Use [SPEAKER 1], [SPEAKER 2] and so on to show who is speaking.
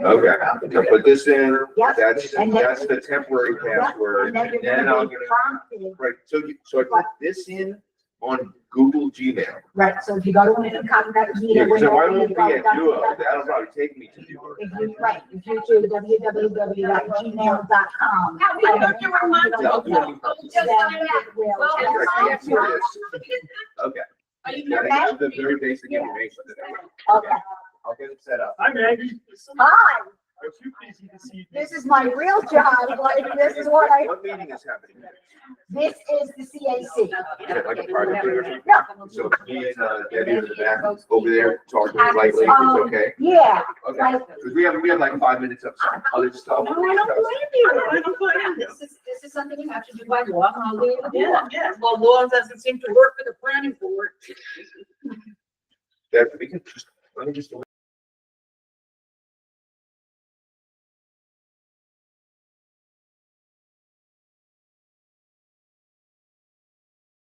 [SPEAKER 1] Okay, I put this in,
[SPEAKER 2] Yep.
[SPEAKER 1] that's,
[SPEAKER 2] And then-
[SPEAKER 1] that's the temporary password.
[SPEAKER 2] And then you're
[SPEAKER 1] Then I'll
[SPEAKER 2] gonna
[SPEAKER 1] get
[SPEAKER 2] be
[SPEAKER 1] it.
[SPEAKER 2] prompted,
[SPEAKER 1] Right, so you, so I put this in on Google Gmail.
[SPEAKER 2] right, so if you go to an income that
[SPEAKER 1] Yeah,
[SPEAKER 2] meeting.
[SPEAKER 1] so why won't
[SPEAKER 2] whenever
[SPEAKER 1] we
[SPEAKER 2] you go,
[SPEAKER 1] at Duo?
[SPEAKER 2] that's-
[SPEAKER 1] That'll probably take me to Duo.
[SPEAKER 2] If you, right, if you do www.gmail.com.
[SPEAKER 3] How we know you were mine?
[SPEAKER 1] Tell
[SPEAKER 3] Oh,
[SPEAKER 1] Duo.
[SPEAKER 3] oh,
[SPEAKER 2] Then
[SPEAKER 3] just like that.
[SPEAKER 2] it will-
[SPEAKER 3] Well,
[SPEAKER 1] Yeah,
[SPEAKER 3] that's
[SPEAKER 1] I
[SPEAKER 3] all.
[SPEAKER 1] can't do this. Okay.
[SPEAKER 3] Are you
[SPEAKER 1] Yeah,
[SPEAKER 3] nervous?
[SPEAKER 1] I have the very basic information. that I need.
[SPEAKER 2] Okay,
[SPEAKER 1] I'll get it set up.
[SPEAKER 4] I'm Maggie.
[SPEAKER 2] hi,
[SPEAKER 4] Are you busy this evening?
[SPEAKER 2] this is my real job, like, this is what I,
[SPEAKER 1] What meeting is happening?
[SPEAKER 2] this is the CAC.
[SPEAKER 1] Yeah, like a private dinner.
[SPEAKER 2] No,
[SPEAKER 1] So me and uh, Debbie are in the back, over there, talking lightly, it's
[SPEAKER 2] Um,
[SPEAKER 1] okay,
[SPEAKER 2] yeah,
[SPEAKER 1] okay.
[SPEAKER 2] like,
[SPEAKER 1] Because we have, we have like five minutes of some other stuff.
[SPEAKER 3] No, I don't blame you. I don't blame you.
[SPEAKER 5] This is, this is something you have to do by law, and I'll leave it with
[SPEAKER 3] Yeah,
[SPEAKER 5] law.
[SPEAKER 3] yeah. Well, law doesn't seem to work for the planning board.
[SPEAKER 1] That we can just, let me just